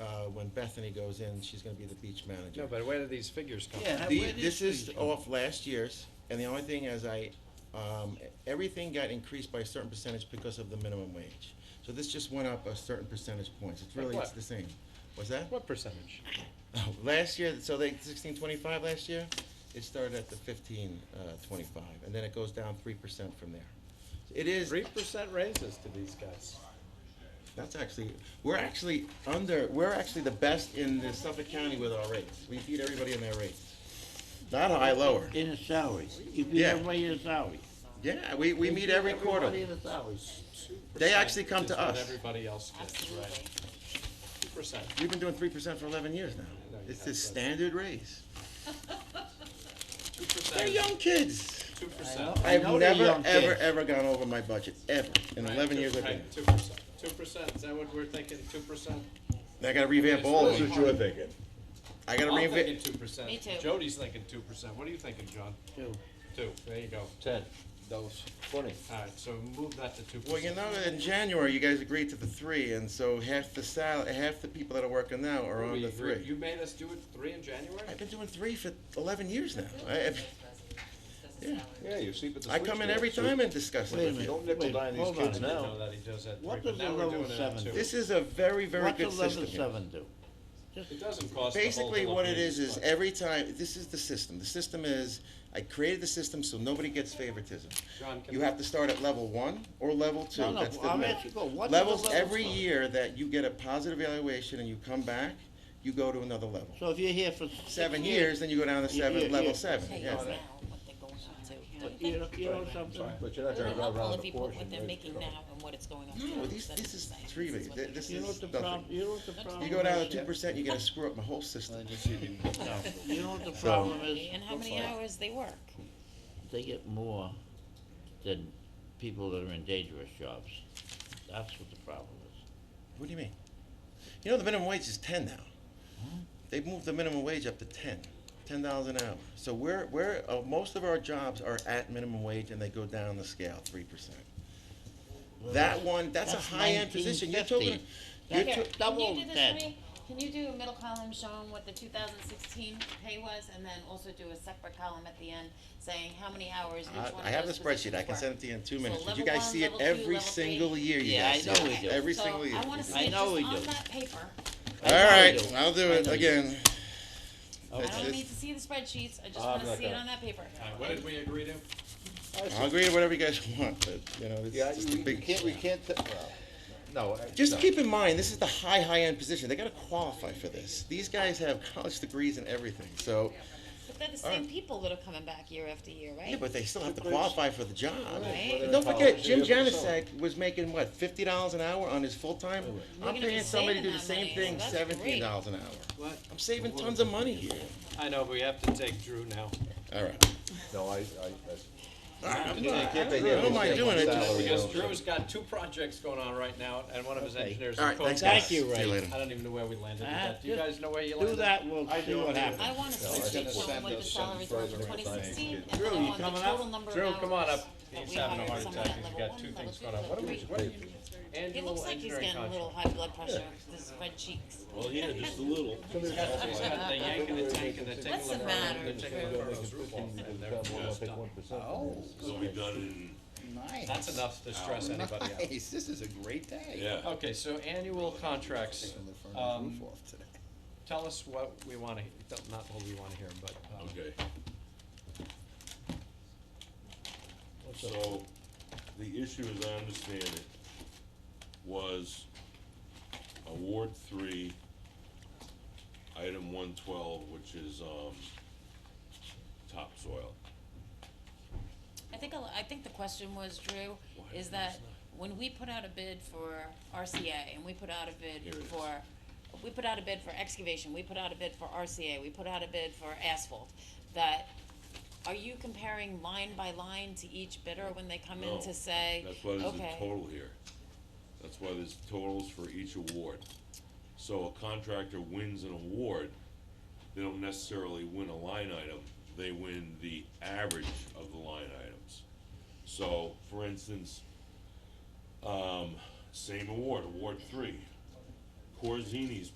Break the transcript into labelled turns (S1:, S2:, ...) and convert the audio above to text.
S1: uh, when Bethany goes in, she's gonna be the beach manager.
S2: No, but where do these figures come
S3: Yeah,
S2: from?
S3: how-
S1: The-
S3: where did
S1: this
S3: these
S1: is
S3: come
S1: off last year's, and the only thing is I, um, everything got increased by a certain percentage because of the minimum wage. So this just went up a certain percentage points, it's
S2: Like
S1: really, it's
S2: what?
S1: the same. Was that?
S2: What percentage?
S1: Last year, so they, sixteen twenty-five last year, it started at the fifteen, uh, twenty-five, and then it goes down three percent from there. It is,
S2: Three percent raises to these guys.
S1: that's actually, we're actually under, we're actually the best in the Suffolk County with our rates. We beat everybody in their rates. Not high, lower.
S3: In the salaries, you beat
S1: Yeah.
S3: everybody in the salary.
S1: Yeah, we, we
S3: You
S1: meet
S3: beat
S1: every quarter.
S3: Everybody in the salaries.
S1: They actually come
S2: Is
S1: to
S2: what
S1: us.
S2: everybody else gets, right? Two percent.
S1: We've been doing three percent for eleven years now.
S2: No, you
S1: It's
S2: haven't.
S1: the standard raise.
S2: Two
S1: They're
S2: percent.
S1: young kids.
S2: Two
S3: I
S2: percent.
S3: know.
S1: I've
S3: know they're
S1: never,
S3: young
S1: ever,
S3: kids.
S1: ever gone over my budget, ever, in eleven years I've been. here.
S2: Two percent. Two percent. Is that what we're thinking? Two percent?
S1: And I gotta revamp all of
S2: That's
S1: them.
S2: what you're
S1: thinking. I gotta
S2: I'm
S1: revamp,
S2: thinking two percent.
S4: Me too.
S2: Jody's thinking two percent. What are you thinking, John?
S3: Two.
S2: Two. There you go.
S5: Ten. That was twenty.
S2: All right, so move that to two percent.
S1: well, you know, in January, you guys agreed to the three, and so half the sal, half the people that are working now are on the three.
S2: You made us do it three in January?
S1: I've been doing three for eleven years now. I, I've-
S4: Yeah.
S5: Yeah, you sleep at the
S1: I
S5: switch.
S1: come in every time and discuss it
S3: Wait a
S1: with you.
S3: minute.
S5: Don't nickel
S3: Wait,
S5: dime these
S3: hold on.
S5: kids
S2: I didn't
S5: now.
S2: know that he does that three,
S3: What
S2: but
S3: does
S2: now
S3: the
S2: we're
S3: level
S2: doing it at
S3: seven
S2: two.
S3: do?
S1: This is a very, very
S3: What
S1: good
S3: does level
S1: system here.
S3: seven do?
S2: It doesn't cost the whole
S1: Basically, what it
S2: Philippines,
S1: is, is
S2: but-
S1: every time, this is the system. The system is, I created the system so nobody gets favoritism.
S2: John, can
S1: You
S2: I-
S1: have to start at level one or level two.
S3: No, no,
S1: That's the
S3: I'm
S1: minimum.
S3: asking you, what is the
S1: Levels
S3: level
S1: every
S3: for?
S1: year that you get a positive evaluation and you come back, you go to another level.
S3: So if you're here for six
S1: Seven years, then you go down to
S3: Yeah, yeah,
S1: seven, level
S3: yeah.
S1: seven, yes.
S3: but You know, you know something?
S5: But you're not
S4: It'll
S5: gonna
S4: help
S5: drive
S4: all
S5: around
S4: if
S5: the
S4: you put
S5: course.
S4: what
S5: and
S4: they're
S5: make-
S4: making now and what it's going on.
S1: No,
S4: to.
S1: these-
S4: That's
S1: this is
S4: what I'm saying.
S1: three
S4: This is
S1: rate.
S4: what they're
S1: This
S4: doing.
S3: You know what the problem, you know what the problem
S1: You go down to
S3: is?
S1: two percent, you're gonna screw up my whole system.
S3: You know what the problem is?
S4: And how many hours they work.
S3: They get more than people that are in dangerous jobs. That's what the problem is.
S1: What do you mean? You know, the minimum wage is ten now. They moved the minimum wage up to ten, ten dollars an hour. So we're, we're, uh, most of our jobs are at minimum wage and they go down the scale three percent. That one, that's a
S3: that's
S1: high-end position. You're talking,
S3: 1950.
S1: you're
S3: That's
S1: to-
S3: it. double
S6: Can you do this
S3: that.
S6: for me? Can you do a middle column showing what the two thousand sixteen pay was, and then also do a separate column at the end saying how many hours each one
S1: I,
S6: of
S1: I have the
S6: those
S1: spreadsheet. I
S6: positions were?
S1: can send it to you in two
S6: So
S1: minutes. But you
S6: level
S1: guys
S6: one,
S1: see it
S6: level two,
S1: every
S6: level three.
S1: single year, you
S3: Yeah,
S1: guys
S3: I
S1: see
S3: know
S1: it.
S3: we do.
S1: Every
S6: So
S1: single year.
S6: I wanna
S1: All
S6: see
S3: I
S6: it
S3: know
S6: just
S3: we
S6: on
S3: do.
S6: that paper.
S3: I know
S1: right,
S3: you do.
S1: I'll do
S3: I
S1: it
S3: know you do.
S1: again.
S6: I
S1: It's-
S6: don't
S1: it's-
S6: need to see the spreadsheets, I just
S5: I'm
S6: wanna
S5: not
S6: see it
S5: gonna-
S6: on that paper.
S2: All right, What did we agree to?
S1: I'll agree to whatever you guys want, but, you know, it's
S5: Yeah,
S1: just a
S5: you, we
S1: big.
S5: can't, we can't, t- well, no. I-
S1: Just
S5: no.
S1: keep in mind, this is the high, high-end position. They gotta qualify for this. These guys have college degrees and everything, so,
S6: But they're the same people that are coming back year after year,
S1: yeah,
S6: right?
S1: but they still have to qualify for the job.
S6: Right.
S1: And Don't forget, Jim
S5: Whether they're college,
S1: Janasek was making, what, fifty dollars an hour on his full-time? I'm
S6: gonna be
S1: paying somebody to do the same
S6: saving that money, so
S1: thing,
S6: that's
S1: seventeen
S6: great.
S1: dollars an hour.
S2: What?
S1: I'm saving tons of money here.
S2: I know, but we have to take Drew now.
S1: All right.
S5: No, I, I,
S1: I'm
S5: I.
S1: not-
S5: can't
S1: I
S5: they
S1: don't know,
S5: get
S1: am I
S5: it?
S1: doing it?
S5: Salary.
S2: Because Drew's got two projects going on right now, and one of his
S3: Okay.
S2: engineers
S1: All
S2: is
S1: right,
S2: coding.
S1: thanks,
S3: Thank
S1: guys.
S3: you,
S1: See
S3: Ray.
S1: you later.
S2: I don't even know where we landed with
S3: Uh,
S2: that. Do you
S3: just
S2: guys know where you
S3: Do
S2: landed?
S3: that, we'll
S2: I
S3: see
S2: do.
S3: what happens.
S6: I want a spreadsheet showing what the salaries were for twenty sixteen, and
S3: Drew,
S6: then I
S3: you
S6: want the
S3: coming
S6: total
S3: up?
S6: number of hours.
S2: Drew, come on up.
S6: that
S2: He's
S6: we
S2: having a
S6: hired
S2: hard
S6: someone
S2: attack.
S6: at
S2: He's
S6: level
S2: got
S6: one,
S2: two
S6: level
S2: things
S6: two,
S2: going on. What are
S6: level
S2: we,
S6: three.
S2: what are you,
S6: He
S2: annual
S6: looks like he's
S2: engineering
S6: getting a little
S2: contract?
S6: high blood pressure, with his red cheeks.
S7: Well, yeah, just a little.
S2: He's got he's got the yank and the tank and the tickle.
S6: What's the
S2: and
S6: matter,
S2: They're taking the furnace roof off, and they're just done.
S5: Oh,
S7: It'll be done
S5: nice.
S2: That's enough to stress anybody out.
S5: Nice, this is a great day.
S7: in, yeah.
S2: Okay, so annual contracts,
S5: Taking the furnace
S2: um,
S5: roof off today.
S2: tell us what we wanna, not what we wanna hear, but, um,
S7: Okay. So, the issue, as I understand it, was award three, item one twelve, which is, um, topsoil.
S6: I think, a lo- I think the question was, Drew, is that when we put out a bid for RCA, and we put out a
S7: Here
S6: bid
S7: it is.
S6: for, we put out a bid for excavation, we put out a bid for RCA, we put out a bid for asphalt, that, are you comparing line by line to each bidder when they come in
S7: No.
S6: to say,
S7: That's why there's a
S6: okay,
S7: total here. That's why there's totals for each award. So a contractor wins an award, they don't necessarily win a line item, they win the average of the line items. So, for instance, um, same award, award three. Corzini's